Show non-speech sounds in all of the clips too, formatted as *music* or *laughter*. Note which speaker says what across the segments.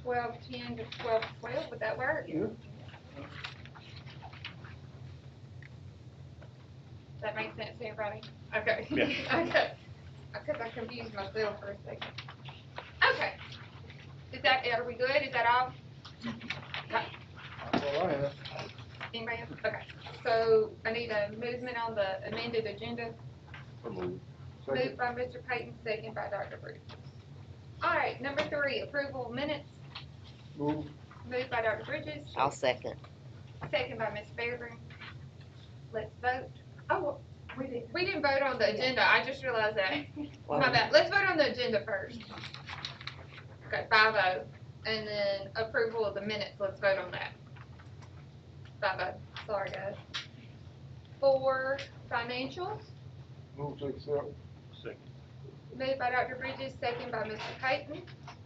Speaker 1: twelve ten to twelve twelve, would that work?
Speaker 2: Yeah.
Speaker 1: Does that make sense to everybody? Okay. *laughs*
Speaker 2: Yeah.
Speaker 1: Okay, because I confused myself for a second. Okay, is that, are we good, is that all?
Speaker 2: That's all I have.
Speaker 1: Anybody else? Okay, so I need a movement on the amended agenda. Moved by Mr. Payton, second by Dr. Bruce. All right, number three, approval of minutes,
Speaker 2: Move.
Speaker 1: moved by Dr. Bridges,
Speaker 3: I'll second.
Speaker 1: second by Ms. Fairburn. Let's vote. Oh, we didn't. We didn't vote on the agenda, I just realized that. My
Speaker 3: Well,
Speaker 1: bad, let's vote on the agenda first. Okay, five oh, and then approval of the minutes, let's vote on that. Five oh, sorry guys. Four, financials,
Speaker 2: Move to accept.
Speaker 1: moved by Dr. Bridges, second by Mr. Payton.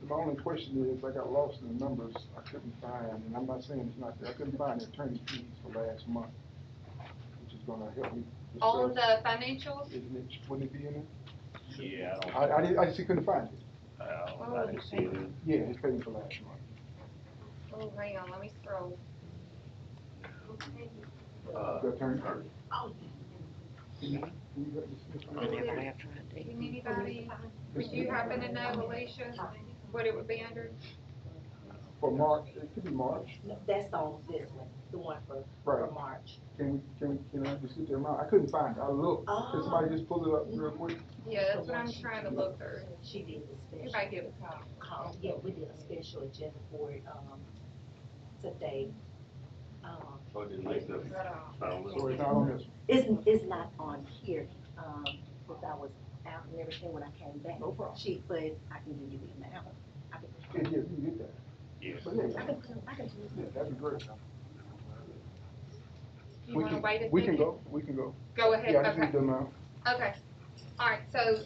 Speaker 2: The only question is, I got lost in the numbers. I couldn't find, and I'm not saying it's not there, I couldn't find the attorney fees for last month, which is gonna help me.
Speaker 1: On
Speaker 2: discuss.
Speaker 1: the financials,
Speaker 2: Isn't it, wouldn't it be in it?
Speaker 4: Yeah, I
Speaker 2: I, I didn't, I just couldn't find it.
Speaker 4: don't, I don't, I didn't see it.
Speaker 2: Yeah, it's paid for last month.
Speaker 1: oh, hang on, let me scroll.
Speaker 4: Uh,
Speaker 2: The attorney.
Speaker 1: Oh.
Speaker 2: Can you- can you let me see if I-
Speaker 3: I never have tried
Speaker 1: Can
Speaker 3: to.
Speaker 1: anybody, would you happen to know, Alicia, what it would be under?
Speaker 2: For March, it could be March,
Speaker 5: No, That's on this one, the one for, for
Speaker 2: right?
Speaker 5: March.
Speaker 2: Can we, can, we- can I just get the amount? I couldn't find it. I looked.
Speaker 1: Oh.
Speaker 2: Can somebody just pull it up real quick?
Speaker 1: Yeah, that's what I'm trying to look through.
Speaker 5: She did a special,
Speaker 1: Anybody give a call?
Speaker 5: call. yeah, we did a special agenda for it, um, today. Um,
Speaker 4: I didn't make the, I don't
Speaker 2: So it's
Speaker 4: know.
Speaker 2: not on this.
Speaker 5: it's, it's not on here, um, because I was out and everything when I came back.
Speaker 2: No problem.
Speaker 5: She, but I can give you the amount. I can,
Speaker 2: Yeah, yeah, you can get that.
Speaker 4: Yes.
Speaker 2: But yeah,
Speaker 5: I can, I can do
Speaker 2: yeah, that'd be great.
Speaker 1: Do you
Speaker 2: We
Speaker 1: wanna
Speaker 2: can-
Speaker 1: wait a second?
Speaker 2: We can go, we can go.
Speaker 1: Go ahead,
Speaker 2: Yeah, I just
Speaker 1: okay,
Speaker 2: need the amount.
Speaker 1: okay. All right, so,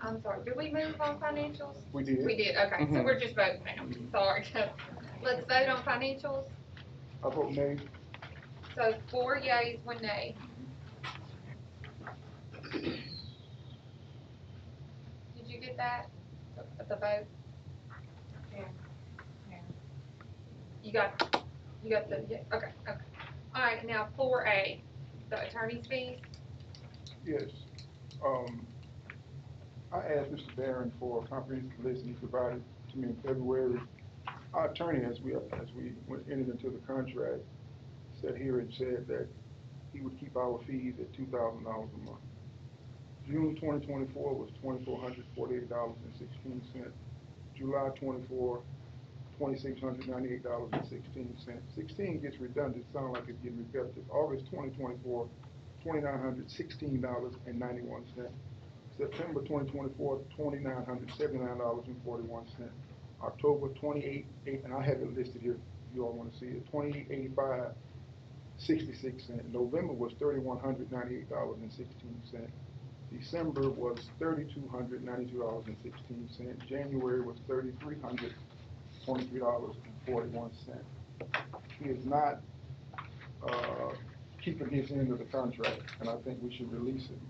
Speaker 1: I'm sorry, did we move on financials?
Speaker 2: We
Speaker 1: We
Speaker 2: did.
Speaker 1: did, okay, so
Speaker 2: Mhm.
Speaker 1: we're just voting now, sorry. *laughs* Let's vote on financials,
Speaker 2: I vote nay.
Speaker 1: so four yays, one nay. Did you get that, The- the vote? You got, you got the, yeah, okay, okay. All right, now four A, the attorney's fees,
Speaker 2: Yes. Um, I asked Mr. Barron for a comprehensive list and he provided to me in February. Our attorney, as we, as we went- entered into the contract, sat here and said that he would keep our fees at two thousand dollars a month. June twenty twenty-four was twenty-four hundred forty-eight dollars and sixteen cents. July 24, 2698 dollars and sixteen cents. Sixteen gets redundant, sound like it's getting repetitive. August twenty twenty-four, twenty-nine hundred sixteen dollars and ninety-one cent. September 2024, dollars and forty-one cent. October twenty-eight, eight, and I have it listed here, if you all wanna see it, twenty-eight eighty-five, sixty-six cent. November was thirty-one hundred ninety-eight dollars and sixteen cent. December was thirty-two hundred ninety-two dollars and sixteen cent. January was thirty-three hundred twenty-three dollars and forty-one cent. He is not, uh, keeping his end of the contract, and I think we should release him,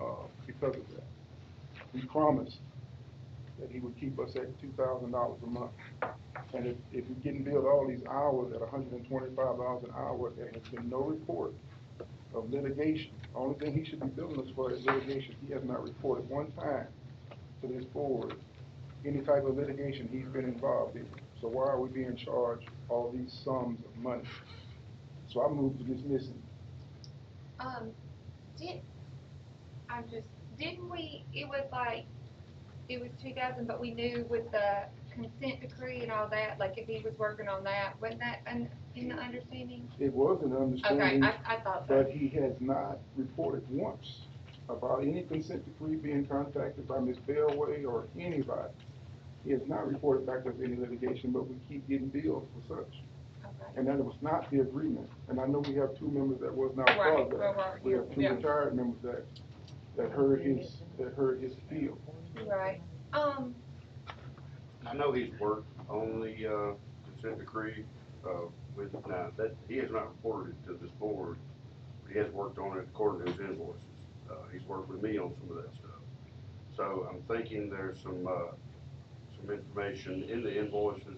Speaker 2: uh, because of that. He promised that he would keep us at two thousand dollars a month. And if, if we getting billed all these hours at hundred and twenty-five dollars an hour, there has been no report of litigation. Only thing he should be billing us for is litigation. He has not reported one time to this board any type of litigation he's been involved in. So why are we being charged all these sums of money? So I move to dismiss him.
Speaker 1: um, did, I'm just, didn't we, it was like, it was two thousand, but we knew with the consent decree and all that, like if he was working on that, wasn't that in, in the understanding?
Speaker 2: It was an
Speaker 1: Okay,
Speaker 2: understanding,
Speaker 1: I, I thought so.
Speaker 2: but he has not reported once about any consent decree being contacted by Ms. Bellway or anybody. He has not reported back of any litigation, but we keep getting bills for such.
Speaker 1: Okay.
Speaker 2: And that was not the agreement. And I know we have two members that was not part
Speaker 1: Right,
Speaker 2: of
Speaker 1: right,
Speaker 2: that.
Speaker 1: right,
Speaker 2: We
Speaker 1: yeah,
Speaker 2: have two
Speaker 1: yeah,
Speaker 2: retired members that, that heard his, that heard his appeal.
Speaker 1: right. Um,
Speaker 4: I know he's worked on the, uh, consent decree, uh, with, now, that, he has not reported to this board. but He has worked on it according to his invoices. Uh, he's worked with me on some of that stuff. So I'm thinking there's some, uh, some information in the invoices